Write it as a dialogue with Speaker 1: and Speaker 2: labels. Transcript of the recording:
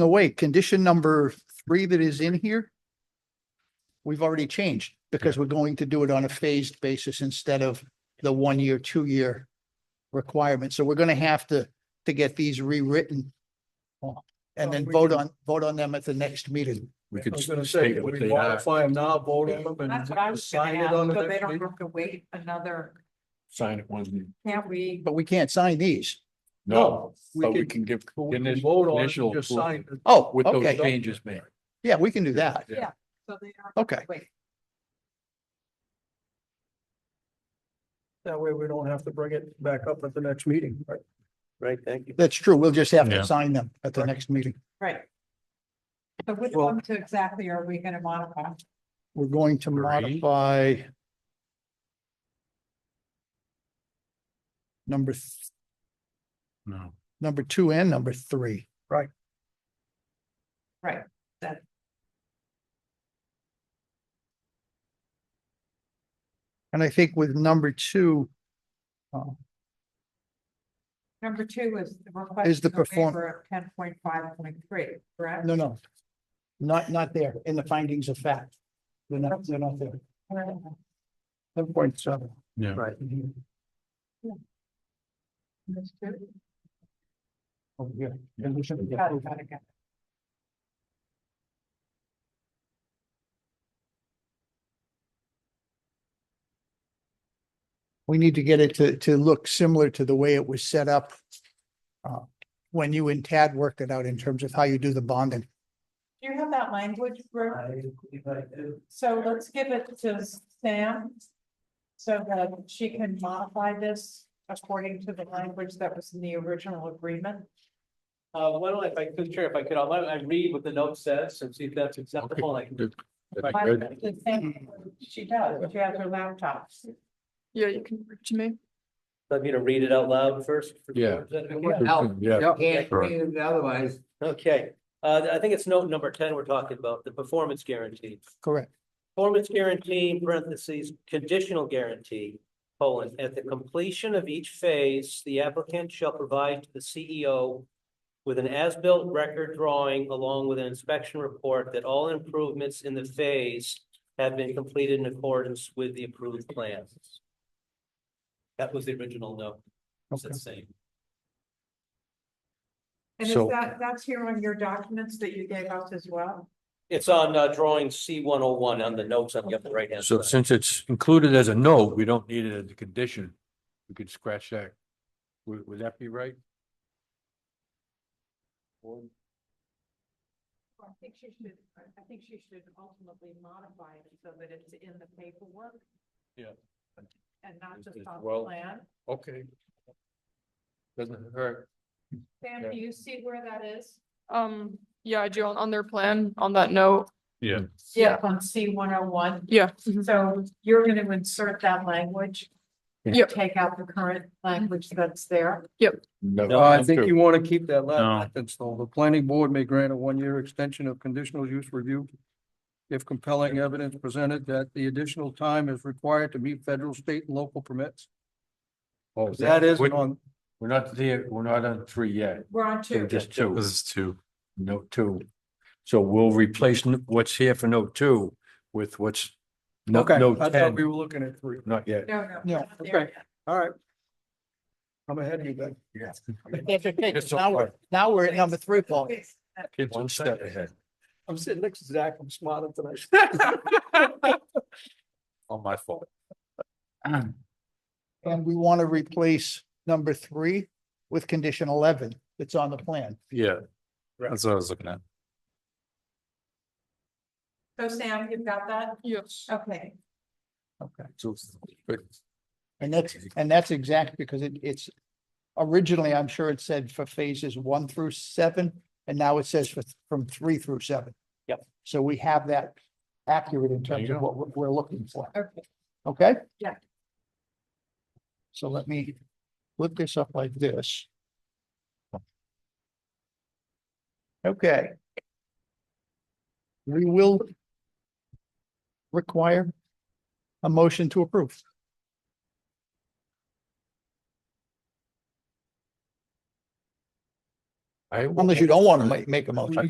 Speaker 1: away, condition number three that is in here, we've already changed because we're going to do it on a phased basis instead of the one-year, two-year requirement. So we're going to have to, to get these rewritten uh, and then vote on, vote on them at the next meeting.
Speaker 2: We
Speaker 3: I
Speaker 2: could
Speaker 3: was gonna say,
Speaker 2: state
Speaker 3: can
Speaker 2: what
Speaker 3: we
Speaker 2: they are,
Speaker 3: modify them now, vote on them
Speaker 4: That's what I
Speaker 3: and
Speaker 4: was gonna
Speaker 3: sign it on
Speaker 4: ask,
Speaker 3: the
Speaker 4: so they
Speaker 3: next
Speaker 4: don't
Speaker 3: meeting?
Speaker 4: have to wait another,
Speaker 2: sign it one,
Speaker 4: can't we?
Speaker 1: But we can't sign these.
Speaker 2: no,
Speaker 3: we
Speaker 2: but we
Speaker 3: could-
Speaker 2: can give
Speaker 3: But we can
Speaker 2: initial-
Speaker 3: Vote on, it
Speaker 2: initial
Speaker 3: and just
Speaker 2: approval.
Speaker 3: sign it.
Speaker 1: Oh,
Speaker 2: with those
Speaker 1: okay.
Speaker 2: changes made.
Speaker 1: Yeah, we can do that.
Speaker 4: So they don't
Speaker 1: Okay.
Speaker 4: wait.
Speaker 3: That way we don't have to bring it back up at the next meeting, right? Right, thank you.
Speaker 1: That's true. We'll just have
Speaker 5: Yeah.
Speaker 1: to sign them at the next meeting.
Speaker 4: Right. So which
Speaker 3: Well-
Speaker 4: one to exactly are we gonna modify?
Speaker 1: We're going to
Speaker 2: Three.
Speaker 1: modify number, th-
Speaker 5: No.
Speaker 1: number two and number three.
Speaker 4: Right, that.
Speaker 1: And I think with number two uh,
Speaker 4: Number two is the request.
Speaker 1: Is the perform-
Speaker 4: Ten point five point three, correct?
Speaker 1: no, no. Not, not there in the findings of fact. They're not, they're not there. Seven point seven.
Speaker 5: Yeah.
Speaker 3: Right.
Speaker 4: That's two.
Speaker 1: over here. Condition- yeah,
Speaker 4: Got it, got it, got it.
Speaker 1: We need to get it to, to look similar to the way it was set up uh, when you and Tad worked it out in terms of how you do the bonding.
Speaker 4: Do you have that language, Ru? So let's give it to Sam. So that she can modify this according to the language that was in the original agreement.
Speaker 6: Uh, why don't I, if I could, sure, if I could, I'll, let- I read what the note says and see if that's acceptable, like.
Speaker 2: Good. That's
Speaker 4: Why-
Speaker 2: good.
Speaker 4: the same- She does, she has her laptop.
Speaker 7: Yeah, you can reach me.
Speaker 6: Let me to read it out loud first.
Speaker 2: Yeah.
Speaker 6: Does that
Speaker 2: Good
Speaker 6: work?
Speaker 2: thing, Yeah,
Speaker 8: Can't
Speaker 2: Sure.
Speaker 8: read it otherwise.
Speaker 6: Okay, uh, I think it's note number ten we're talking about, the performance guarantee.
Speaker 1: Correct.
Speaker 6: Performance guarantee, in parentheses, conditional guarantee, colon, at the completion of each phase, the applicant shall provide to the CEO with an as-built record drawing along with an inspection report that all improvements in the phase have been completed in accordance with the approved plans. That was the original note. It's the
Speaker 1: Okay.
Speaker 6: same.
Speaker 4: And is
Speaker 2: So-
Speaker 4: that, that's here on your documents that you gave us as well?
Speaker 6: It's on uh, drawing C one oh one on the notes on the upper right-hand
Speaker 2: so
Speaker 6: side.
Speaker 2: since it's included as a note, we don't need it as a condition. We could scratch that. Would, would that be right?
Speaker 4: I think she should, I think she should ultimately modify it so that it's in the paperwork.
Speaker 2: Yeah.
Speaker 4: And not
Speaker 2: It's-
Speaker 4: just
Speaker 2: it's
Speaker 4: on the
Speaker 2: well-
Speaker 4: plan.
Speaker 2: Okay. Doesn't hurt.
Speaker 4: Sam,
Speaker 2: Yeah.
Speaker 4: do you see where that is?
Speaker 7: Um, yeah, I do on, on their plan, on that note.
Speaker 5: Yeah.
Speaker 7: Yeah.
Speaker 4: On C one oh one.
Speaker 7: Yeah. Mm-hmm.
Speaker 4: So you're gonna insert that language? and
Speaker 7: Yep.
Speaker 4: Take out the current language that's there.
Speaker 3: No, Uh, I think you want to keep that
Speaker 5: No.
Speaker 3: last sentence, though. The planning board may grant a one-year extension of conditional use review if compelling evidence presented that the additional time is required to meet federal, state, and local permits.
Speaker 2: Oh,
Speaker 3: That is
Speaker 2: We're
Speaker 3: on,
Speaker 2: we're not there, we're not on three yet,
Speaker 4: We're on
Speaker 2: so
Speaker 4: two.
Speaker 2: just two.
Speaker 5: This is two.
Speaker 2: note two. So we'll replace n- what's here for note two with what's no,
Speaker 3: okay,
Speaker 2: note
Speaker 3: I thought we
Speaker 2: ten,
Speaker 3: were looking at three.
Speaker 2: not yet.
Speaker 4: No, no.
Speaker 1: No.
Speaker 4: we're not there
Speaker 3: Okay. All right. I'm ahead of you, Ben.
Speaker 2: Yeah. It's
Speaker 1: Now we're, now we're at number three, Paul.
Speaker 4: yet.
Speaker 2: It's one step ahead.
Speaker 3: I'm sitting next to Zach. I'm smarter tonight.
Speaker 2: All my fault.
Speaker 1: And we want to replace number three with condition eleven that's on the plan.
Speaker 5: Yeah. That's what I was looking at.
Speaker 4: So Sam, you've got that?
Speaker 7: Yes.
Speaker 4: Okay.
Speaker 1: Okay.
Speaker 2: So, but
Speaker 1: And that's, and that's exact because it, it's originally, I'm sure it said for phases one through seven, and now it says for, from three through seven.
Speaker 6: Yep.
Speaker 1: So we have that accurate in
Speaker 2: There you
Speaker 1: terms of
Speaker 2: go.
Speaker 1: what we're- we're looking for.
Speaker 4: Okay.
Speaker 1: Okay?
Speaker 4: Yeah.
Speaker 1: So let me flip this up like this. Okay. We will require a motion to approve.
Speaker 2: I-
Speaker 1: unless you don't want to make, make a motion.